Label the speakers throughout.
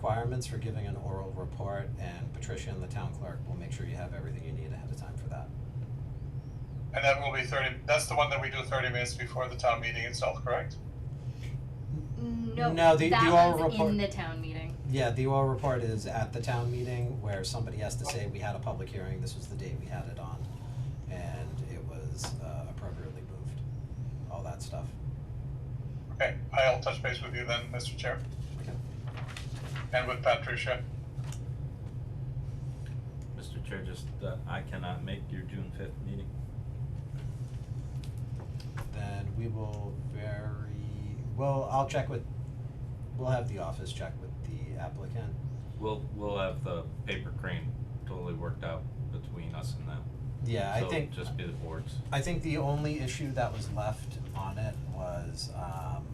Speaker 1: requirements for giving an oral report, and Patricia and the town clerk will make sure you have everything you need ahead of time for that.
Speaker 2: And that will be thirty, that's the one that we do thirty minutes before the town meeting itself, correct?
Speaker 3: No,
Speaker 1: No, the- the oral
Speaker 3: that one's
Speaker 1: report-
Speaker 3: in the town meeting.
Speaker 1: Yeah, the oral report is at the town meeting where somebody has to say, we had a public hearing, this was the date we had it on, and it was uh, appropriately moved, all that stuff.
Speaker 2: Okay, I'll touch base with you then, Mr. Chair,
Speaker 1: Okay.
Speaker 2: and with Patricia.
Speaker 4: Mr. Chair, just, uh, I cannot make your June fifth meeting.
Speaker 1: Then we will very, well, I'll check with, we'll have the office check with the applicant.
Speaker 4: We'll, we'll have the paper crane totally worked out between us and them.
Speaker 1: Yeah, I think,
Speaker 4: So just be the boards.
Speaker 1: I think the only issue that was left on it was, um,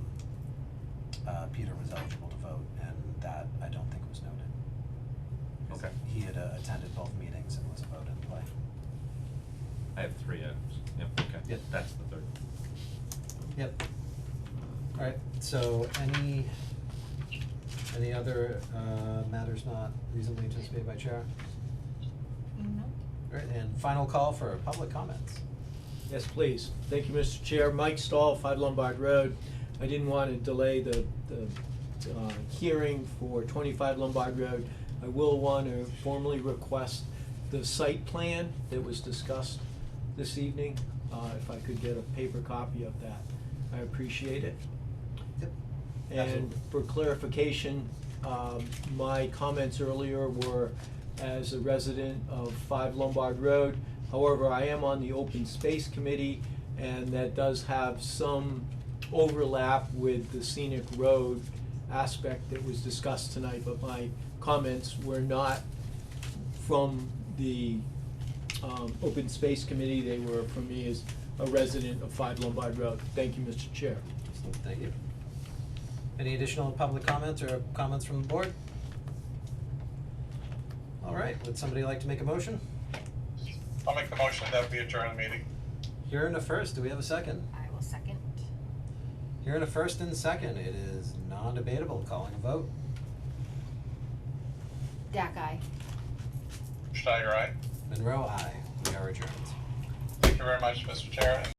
Speaker 1: uh, Peter was eligible to vote, and that I don't think was noted. 'Cause
Speaker 4: Okay.
Speaker 1: He had uh, attended both meetings and was a vote in play.
Speaker 4: I have three items. Yep, okay.
Speaker 1: Yep.
Speaker 4: That's the third.
Speaker 1: Yep. Alright, so any, any other, uh, matters not reasonably anticipated by chair? Alright, and final call for public comments.
Speaker 5: Yes, please. Thank you, Mr. Chair. Mike Stahl, Five Lombard Road. I didn't want to delay the, the, uh, hearing for twenty-five Lombard Road. I will want to formally request the site plan that was discussed this evening, uh, if I could get a paper copy of that. I appreciate it.
Speaker 1: Yep.
Speaker 5: And
Speaker 1: Absolutely.
Speaker 5: for clarification, um, my comments earlier were as a resident of Five Lombard Road. However, I am on the Open Space Committee, and that does have some overlap with the scenic road aspect that was discussed tonight, but my comments were not from the um, Open Space Committee. They were from me as a resident of Five Lombard Road. Thank you, Mr. Chair.
Speaker 1: Thank you. Any additional public comments or comments from the board? Alright, would somebody like to make a motion?
Speaker 2: I'll make the motion that we adjourn the meeting.
Speaker 1: Here in a first, do we have a second?
Speaker 6: I will second.
Speaker 1: Here in a first and second, it is non-debatable, calling a vote.
Speaker 6: Dak eye.
Speaker 2: Schneider, aye.
Speaker 1: Monroe, aye. We are adjourned.
Speaker 2: Thank you very much, Mr. Chair, and